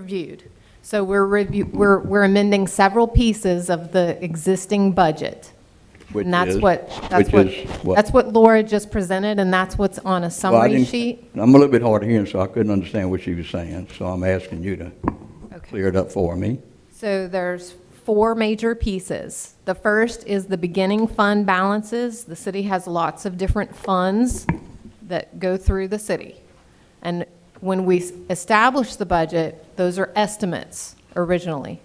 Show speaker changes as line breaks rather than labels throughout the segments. reviewed. So we're review, we're, we're amending several pieces of the existing budget.
Which
And that's
is-
what, that's
which is
what,
what?
that's what Laura just presented, and that's what's on a
Well, I
summary
didn't-
sheet.
I'm a little bit hard of hearing, so I couldn't understand what she was saying, so I'm asking you to
Okay.
clear it up for me.
So there's four major pieces. The first is the beginning fund balances. The city has lots of different funds that go through the city. And when we s- establish the budget, those are estimates originally.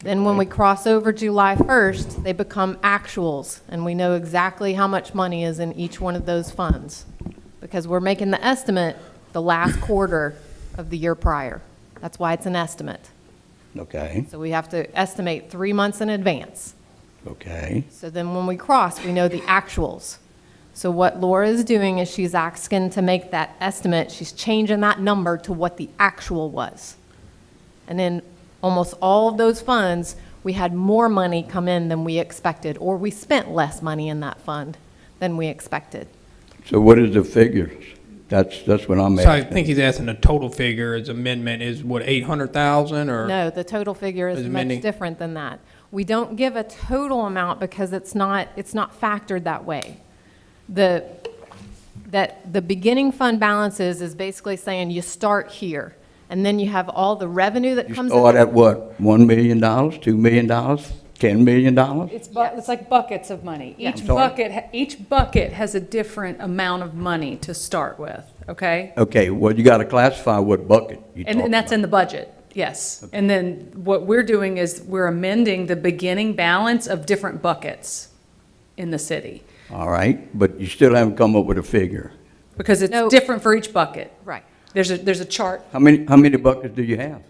Then when we cross over July 1st, they become actuals, and we know exactly how much money is in each one of those funds, because we're making the estimate the last quarter of the year prior. That's why it's an estimate.
Okay,
So we have to estimate three months in advance.
okay,
So then when we cross, we know the actuals. So what Laura is doing is she's asking to make that estimate, she's changing that number to what the actual was. And then almost all of those funds, we had more money come in than we expected, or we spent less money in that fund than we expected.
so what is the figures? That's, that's what I'm
So I
asking.
think he's asking the total figure, his amendment is what, eight hundred thousand or?
No, the total figure is
Is it
much
mending?
different than that. We don't give a total amount because it's not, it's not factored that way. The, that, the beginning fund balances is basically saying you start here, and then you have all the revenue that
You
comes in.
start at what, $1 million, $2 million, $10 million?
It's bu, it's like buckets of money. Each
I'm sorry?
bucket, ha- each bucket has a different amount of money to start with, okay?
Okay, well, you got to classify what bucket you
And, and that's in the budget, yes. And then what we're doing is we're amending the beginning balance of different buckets in the city.
All right, but you still haven't come up with a figure.
Because it's
No.
different for each bucket.
Right.
There's a, there's a chart.
How many, how many buckets do you have?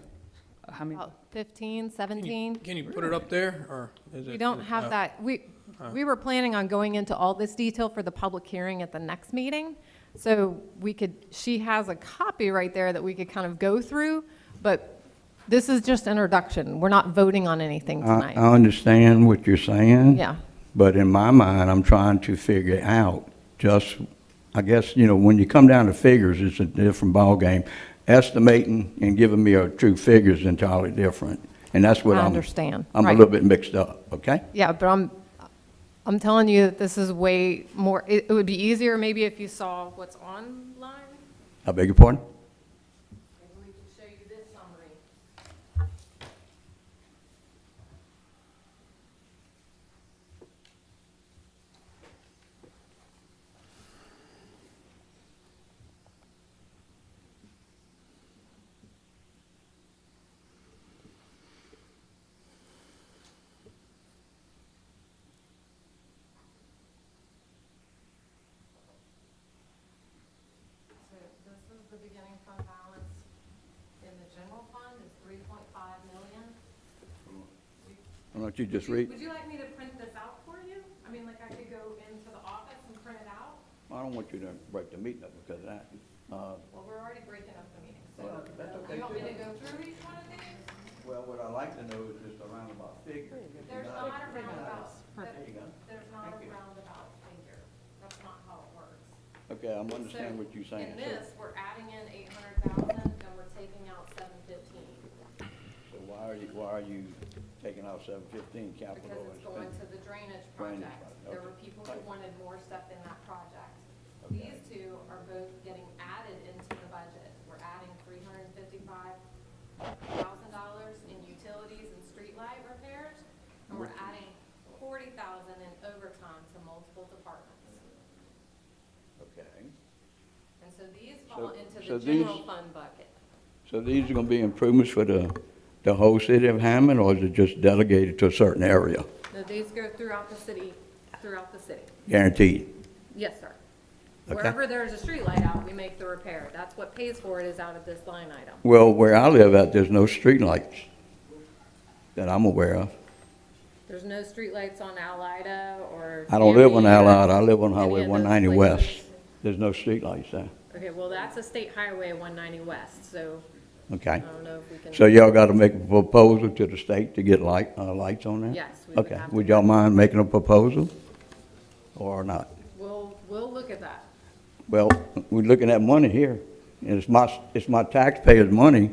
How many-
About 15,
Can
17?
you put it up there or? is
We
it-
don't
no.
have that, we, we were planning on going into all this detail for the public hearing at the next meeting. So we could, she has a copy right there that we could kind of go through, but this is just introduction. We're not voting on anything
I,
tonight.
I understand what you're saying.
Yeah.
But in my mind, I'm trying to figure out just, I guess, you know, when you come down to figures, it's a different ballgame. Estimating and giving me a true figure is entirely different. And that's what
I
I'm.
understand,
I'm a
right.
little bit mixed up, okay?
Yeah, but I'm, I'm telling you that this is way more, it it would be easier maybe if you saw what's online.
I beg your pardon?
Maybe we could show you this summary. So this is the beginning fund balance in the general fund is three point five million.
Why don't you just read?
Would you like me to print this out for you? I mean, like I could go into the office and print it out?
I don't want you to break the meeting up because of that. Uh,
Well, we're already breaking up the meeting, so
Well, that's
do
okay,
you want me
too.
to go through each one of these?
Well, what I like to know is just a roundabout figure.
There's not a roundabout,
There you go.
there's not a roundabout figure. That's not how it works.
Okay, I'm
So
understanding what you're saying.
In
So-
this, we're adding in eight hundred thousand and we're taking out seven fifteen
So why are you, why are you taking out seven fifteen capital?
because it's going to the drainage project.
project,
There
okay.
were people who wanted more stuff in that project. These two are both getting added into the budget. We're adding three hundred and fifty-five thousand dollars in utilities and streetlight repairs. And we're adding forty thousand in overtime to multiple departments.
Okay.
And so these fall
So-
into
so
the
these-
general fund bucket.
So these are gonna be improvements for the, the whole city of Hammond, or is it just delegated to a certain area?
No, these go throughout the city, throughout the city.
Guaranteed?
Yes, sir.
Okay.
Wherever there's a street light out, we make the repair. That's what pays for it is out of this line item.
Well, where I live at, there's no streetlights that I'm aware of.
There's no street lights on Alida or.
I don't live on
Cammy or
Allied, I live on
any
Highway
of those
one ninety west.
places.
There's no streetlights there,
Okay, well, that's a state highway, one ninety west, so I
okay?
don't know if we can.
So y'all gotta make a proposal to the state to get light, uh, lights on there?
Yes, we would
Okay,
have to.
would y'all mind making a proposal? Or not?
We'll, we'll look at that.
Well, we're looking at money here, and it's my, it's my taxpayers' money